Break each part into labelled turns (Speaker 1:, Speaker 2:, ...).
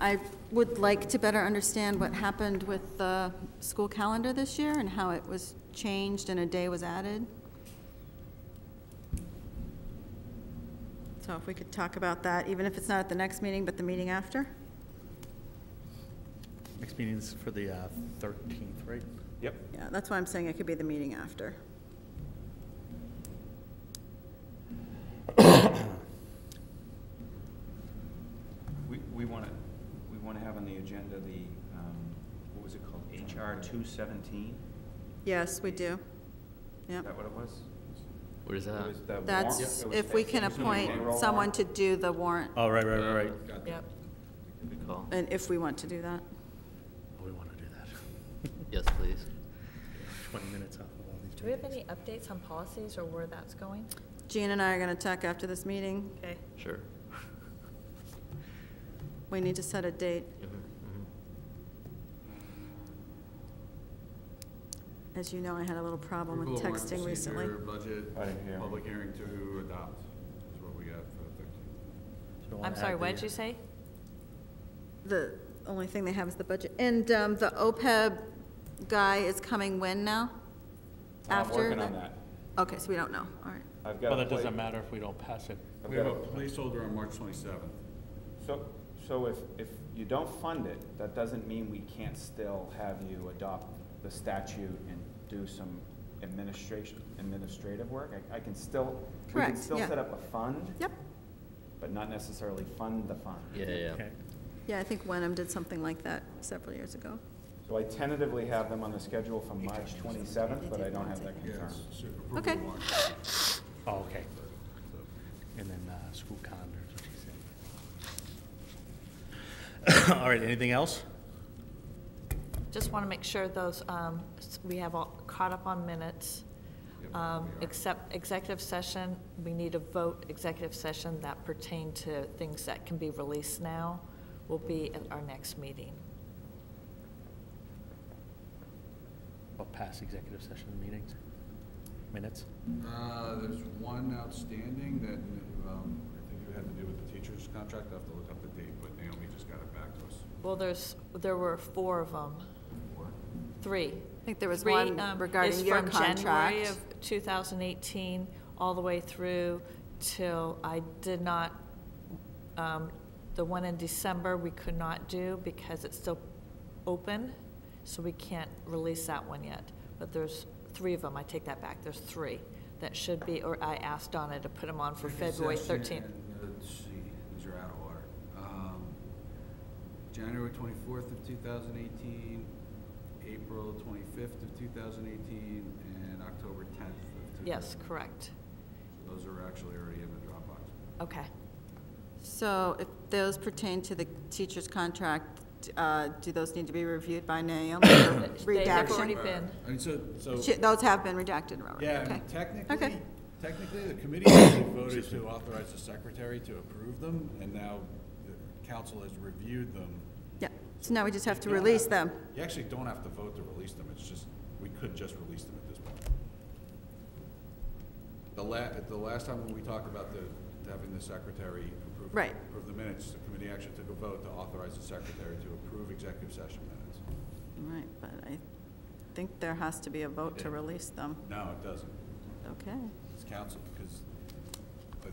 Speaker 1: I would like to better understand what happened with the school calendar this year and how it was changed and a day was added. So if we could talk about that, even if it's not at the next meeting, but the meeting after?
Speaker 2: Next meeting's for the uh, 13th, right?
Speaker 3: Yep.
Speaker 1: Yeah, that's why I'm saying it could be the meeting after.
Speaker 3: We, we want to, we want to have on the agenda the, um, what was it called, HR two seventeen?
Speaker 1: Yes, we do.
Speaker 3: Is
Speaker 1: Yep.
Speaker 3: that what it was?
Speaker 4: What is
Speaker 3: It
Speaker 4: that?
Speaker 3: was the warrant-
Speaker 1: That's
Speaker 3: it was
Speaker 1: if we can
Speaker 3: it was gonna be payroll
Speaker 1: appoint someone
Speaker 3: warrant.
Speaker 1: to do the warrant,
Speaker 2: Oh, right, right, right, right.
Speaker 4: Yep. Good call.
Speaker 1: and if we want to do that.
Speaker 2: Oh, We want to do that.
Speaker 4: Yes, please.
Speaker 2: 20 minutes off of all these.
Speaker 5: Do we have
Speaker 2: meetings.
Speaker 5: any updates on policies or where that's going?
Speaker 1: Jean and I are going to talk after this meeting.
Speaker 5: Okay.
Speaker 4: Sure.
Speaker 1: We need to set a date.
Speaker 4: Mhm, mhm.
Speaker 1: As you know, I had a little problem with
Speaker 6: Approval of warrant
Speaker 1: texting recently.
Speaker 6: procedure,
Speaker 3: Right here.
Speaker 6: Budget, public hearing to adopt is what we got for the thirteenth.
Speaker 2: So we'll
Speaker 5: I'm
Speaker 2: add
Speaker 5: sorry,
Speaker 2: the,
Speaker 5: what did you
Speaker 2: uh,
Speaker 5: say?
Speaker 1: The only thing they have is the budget. And um, the OPEB guy is coming when now?
Speaker 3: I'm
Speaker 1: After
Speaker 3: working on
Speaker 1: the-
Speaker 3: that.
Speaker 1: Okay, so we don't know, all right.
Speaker 3: I've got.
Speaker 2: Well,
Speaker 3: a
Speaker 2: that doesn't
Speaker 3: plate-
Speaker 2: matter if we don't pass it.
Speaker 3: I've
Speaker 6: We have
Speaker 3: got
Speaker 6: a
Speaker 3: a-
Speaker 6: placeholder on March twenty-seventh.
Speaker 3: So, so if, if you don't fund it, that doesn't mean we can't still have you adopt the statute and do some administration, administrative work? I, I can still, we can
Speaker 1: Correct,
Speaker 3: still
Speaker 1: yeah.
Speaker 3: set up a fund,
Speaker 1: Yep.
Speaker 3: but not necessarily fund the fund.
Speaker 4: Yeah, yeah, yeah.
Speaker 2: Okay.
Speaker 1: Yeah, I think Wenham did something like that several years ago.
Speaker 3: So I tentatively have them on the schedule for March twenty-seventh, but I don't have that confirmed.
Speaker 6: Yes.
Speaker 1: Okay.
Speaker 2: Oh, okay. And then uh, school calendar, is what you said. All right, anything else?
Speaker 5: Just want to make sure those, um, s- we have all caught up on minutes.
Speaker 6: Yep,
Speaker 5: Um,
Speaker 6: we are.
Speaker 5: Except executive session, we need a vote executive session that pertain to things that can be released now will be at our next meeting.
Speaker 2: About past executive session meetings, minutes?
Speaker 6: Uh, there's one outstanding that, um, I think it had to do with the teacher's contract, I have to look up the date, but Naomi just got it back to us.
Speaker 5: Well, there's, there were four of them,
Speaker 6: Four.
Speaker 5: three.
Speaker 1: I think there was
Speaker 5: Three,
Speaker 1: one
Speaker 5: um,
Speaker 1: regarding
Speaker 5: is
Speaker 1: your
Speaker 5: from January
Speaker 1: contract.
Speaker 5: of 2018, all the way through till I did not, um, the one in December, we could not do because it's still open, so we can't release that one yet. But there's three of them, I take that back, there's three that should be, or I asked Donna to put them on for February 13th.
Speaker 6: uh, Let's see, these are out of order. Um, January twenty-fourth of two thousand eighteen, April twenty-fifth of two thousand eighteen, and October tenth of two thousand.
Speaker 5: Yes, correct.
Speaker 6: Those are actually already in the Dropbox.
Speaker 5: Okay.
Speaker 1: So if those pertain to the teacher's contract, uh, do those need to be reviewed by Naomi for
Speaker 5: They have
Speaker 1: redaction?
Speaker 5: already been,
Speaker 6: I mean, so, so.
Speaker 1: She- Those have been redacted, Robert,
Speaker 6: Oh. Yeah, I
Speaker 1: okay.
Speaker 6: mean, technically,
Speaker 1: Okay.
Speaker 6: technically, the committee actually voted to authorize the secretary to approve them, and now the council has reviewed them.
Speaker 1: Yeah, so now we just have to
Speaker 6: You don't
Speaker 1: release them.
Speaker 6: You actually don't have to vote to release them, it's just, we could just release them at this point. The la, the last time when we talked about the, having the secretary approve.
Speaker 1: Right.
Speaker 6: Approve the minutes, the committee actually took a vote to authorize the secretary to approve executive session minutes.
Speaker 1: Right, but I think there has to be a vote to release them.
Speaker 6: No, it doesn't.
Speaker 1: Okay.
Speaker 6: It's council, because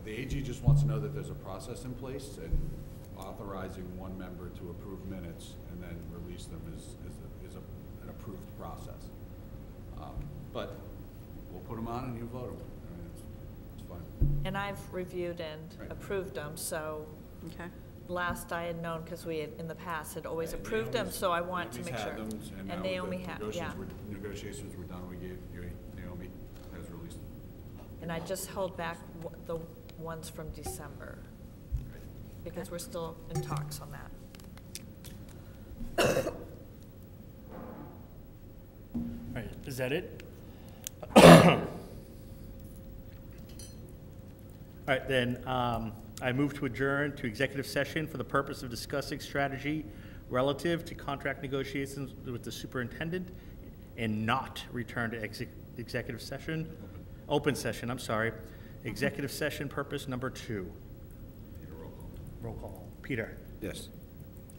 Speaker 6: the AG just wants to know that there's a process in place and authorizing one member to approve minutes and then release them is, is, a- is a, an approved process. Um, But we'll put them on and you vote them. I mean, it's, it's fine.
Speaker 5: and I've reviewed and
Speaker 6: Right.
Speaker 5: approved them, so
Speaker 1: Okay.
Speaker 5: last I had known, because we had, in the past, had always
Speaker 6: And
Speaker 5: approved them,
Speaker 6: Naomi's-
Speaker 5: so I want to
Speaker 6: Naomi's
Speaker 5: make
Speaker 6: had
Speaker 5: sure.
Speaker 6: them, And now
Speaker 5: they only
Speaker 6: that
Speaker 5: have, yeah.
Speaker 6: negotiations were, negotiations were done, we gave, Naomi has released them.
Speaker 5: And I just held back w- the ones from December, because we're still in talks on that.
Speaker 2: All right, is that it? All right, then, um, I move to adjourn to executive session for the purpose of discussing strategy relative to contract negotiations with the superintendent and not return to exec- executive session, open session, I'm sorry, executive session purpose number two.
Speaker 6: Need a roll call.
Speaker 2: Roll call. Peter?
Speaker 6: Yes.